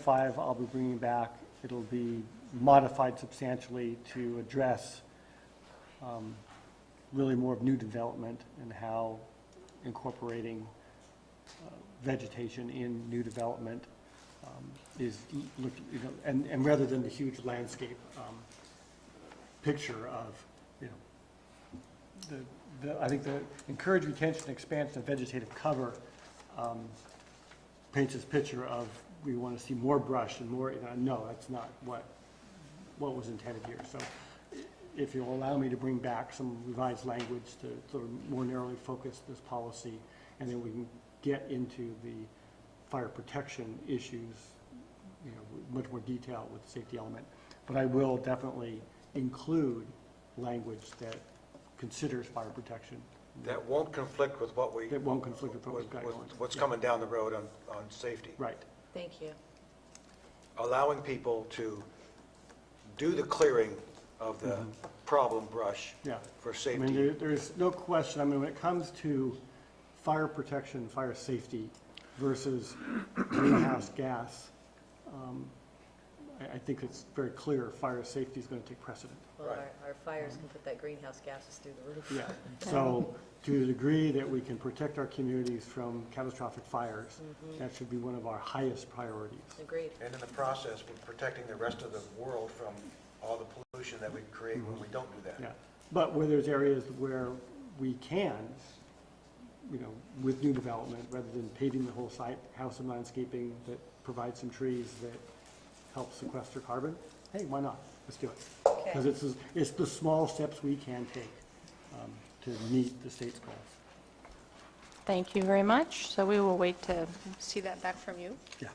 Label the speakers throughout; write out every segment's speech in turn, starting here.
Speaker 1: five I'll be bringing back. It'll be modified substantially to address um, really more of new development and how incorporating uh, vegetation in new development um, is, l- look, you know, and, and rather than the huge landscape um, picture of, you know, the, the, I think the encourage retention, expansion of vegetative cover um, paints this picture of we want to see more brush and more, you know, no, that's not what, what was intended here. So i- if you'll allow me to bring back some revised language to sort of more narrowly focus this policy, and then we can get into the fire protection issues, you know, with much more detail with the safety element. But I will definitely include language that considers fire protection
Speaker 2: That won't conflict with what we.
Speaker 1: that won't conflict with what we've
Speaker 2: with-
Speaker 1: got
Speaker 2: with
Speaker 1: going.
Speaker 2: What's
Speaker 1: Yeah.
Speaker 2: coming down the road on, on safety.
Speaker 1: Right,
Speaker 3: Thank you.
Speaker 2: Allowing people to do the clearing of the problem brush
Speaker 1: yeah.
Speaker 2: for
Speaker 1: Mm-hmm. I mean, there,
Speaker 2: safety.
Speaker 1: there's no question, I mean, when it comes to fire protection, fire safety versus greenhouse gas, um, I, I think it's very clear, fire safety is gonna take precedent.
Speaker 3: Well,
Speaker 2: Right.
Speaker 3: our, our fires can put that greenhouse gases through the roof.
Speaker 1: Mm-hmm. Yeah, so to the degree that we can protect our communities from catastrophic fires, that should be one of our highest priorities.
Speaker 3: Agreed.
Speaker 2: And in the process, we're protecting the rest of the world from all the pollution that we create when we don't do
Speaker 1: Mm-hmm. Yeah,
Speaker 2: that.
Speaker 1: but where there's areas where we can, you know, with new development, rather than paving the whole site, have some landscaping that provides some trees that help sequester carbon, hey, why not? Let's do it. Because
Speaker 3: Okay,
Speaker 1: it's, it's the small steps we can take um, to meet the state's goals.
Speaker 4: Thank you very much. So we will wait to see that back from you.
Speaker 1: Yeah.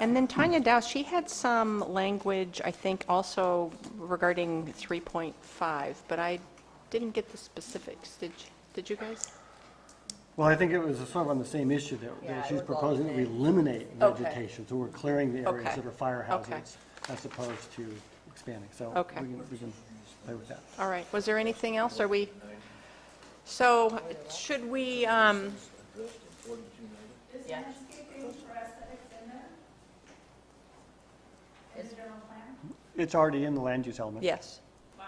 Speaker 4: And then Tanya Dow, she had some language, I think, also regarding 3.5, but I didn't get the specifics. Did you- Did you guys?
Speaker 1: Well, I think it was sort of on the same issue that-
Speaker 3: Yeah,
Speaker 1: that
Speaker 3: it
Speaker 1: she's
Speaker 3: was all the
Speaker 1: proposing that we
Speaker 3: same.
Speaker 1: eliminate
Speaker 4: Okay.
Speaker 1: vegetation. So we're clearing the areas
Speaker 4: Okay.
Speaker 1: that are fire
Speaker 4: Okay.
Speaker 1: hazards as opposed to expanding. So
Speaker 4: Okay.
Speaker 1: we can, we can play with that.
Speaker 4: All right. Was there anything else? Are we, so should we, um,
Speaker 3: yeah.
Speaker 1: It's already in the land use element.
Speaker 4: yes. Wow.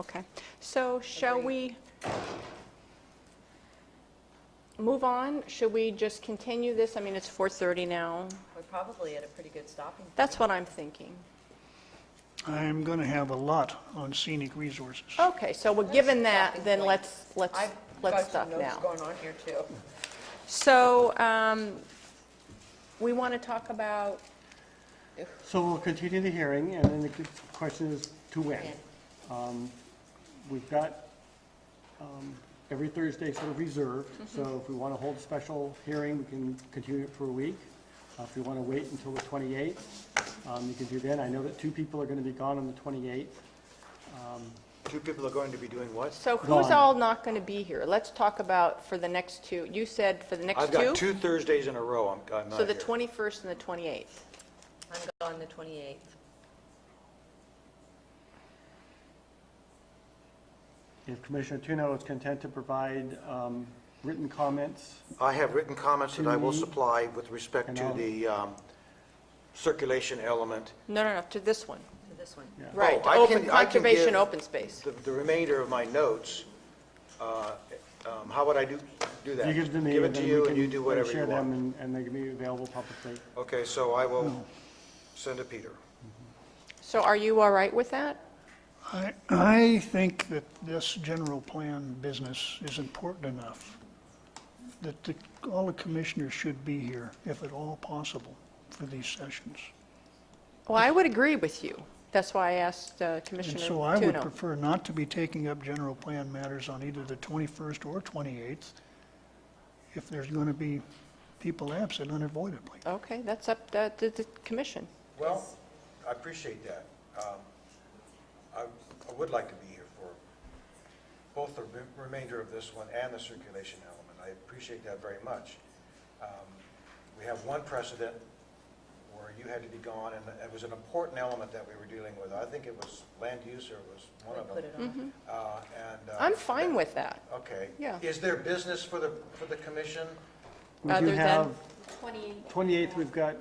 Speaker 4: Okay. So shall we move on? Should we just continue this? I mean, it's 4:30 now.
Speaker 3: We're probably at a pretty good stopping.
Speaker 4: That's what I'm thinking.
Speaker 5: I'm going to have a lot on scenic resources.
Speaker 4: Okay, so we're given that,
Speaker 3: Stopping
Speaker 4: then
Speaker 3: point.
Speaker 4: let's, let's,
Speaker 3: I've
Speaker 4: let's
Speaker 3: got
Speaker 4: stop
Speaker 3: some notes
Speaker 4: now.
Speaker 3: going on here too.
Speaker 4: So, um, we want to talk about,
Speaker 1: So we'll continue the hearing, and then the question is to when.
Speaker 3: When.
Speaker 1: Um, We've got um, every Thursday sort of reserved, so if we want to hold a special hearing, we can continue it for a week. Uh, If we want to wait until the 28th, um, you can do that. I know that two people are going to be gone on the 28th.
Speaker 2: Two people are going to be doing what?
Speaker 4: so who's
Speaker 1: Gone.
Speaker 4: all not going to be here? Let's talk about for the next two, you said for the next
Speaker 2: I've
Speaker 4: two?
Speaker 2: got two Thursdays in a row, I'm, I'm not
Speaker 4: So the
Speaker 2: here.
Speaker 4: 21st and the 28th.
Speaker 3: I'm gone the 28th.
Speaker 1: If Commissioner Tuno is content to provide um, written comments,
Speaker 2: I have written comments that I will
Speaker 1: To-
Speaker 2: supply with respect
Speaker 1: Mm-hmm. And
Speaker 2: to
Speaker 1: I'll-
Speaker 2: the um, circulation element.
Speaker 4: No, no, no, to this one.
Speaker 3: to this one.
Speaker 1: Yeah.
Speaker 4: Right,
Speaker 2: Oh, I
Speaker 4: to
Speaker 2: can- I
Speaker 4: open,
Speaker 2: can
Speaker 4: conservation,
Speaker 2: give-
Speaker 4: open space.
Speaker 2: The the remainder of my notes, uh, um, how would I do, do that?
Speaker 1: you give them to me,
Speaker 2: Give it
Speaker 1: and
Speaker 2: to
Speaker 1: then we
Speaker 2: you, and you
Speaker 1: can
Speaker 2: do
Speaker 1: sort of
Speaker 2: whatever
Speaker 1: share
Speaker 2: you
Speaker 1: them, and-
Speaker 2: want.
Speaker 1: and they can be available publicly.
Speaker 2: Okay, so I will send to Peter.
Speaker 4: So are you all right with that?
Speaker 5: I, I think that this general plan business is important enough that the, all the commissioners should be here, if at all possible, for these sessions.
Speaker 4: Well, I would agree with you. That's why I asked uh,
Speaker 5: And
Speaker 4: Commissioner
Speaker 5: so I would
Speaker 4: Tuno.
Speaker 5: prefer not to be taking up general plan matters on either the 21st or 28th if there's going to be people absent unavoidably.
Speaker 4: Okay, that's up to to the commission.
Speaker 2: Well, I appreciate that. Um, I I would like to be here for both the re- remainder of this one and the circulation element. I appreciate that very much. Um, We have one precedent where you had to be gone, and it was an important element that we were dealing with. I think it was land use, or it was one
Speaker 3: They
Speaker 2: of them.
Speaker 3: put it on.
Speaker 2: Uh, and, uh,
Speaker 4: Mm-hmm. I'm fine with that.
Speaker 2: Okay.
Speaker 4: Yeah.
Speaker 2: Is there business for the, for the commission?
Speaker 1: We
Speaker 4: Other
Speaker 1: do
Speaker 4: than-
Speaker 1: have
Speaker 6: twenty-eighth.
Speaker 1: 28th, we've got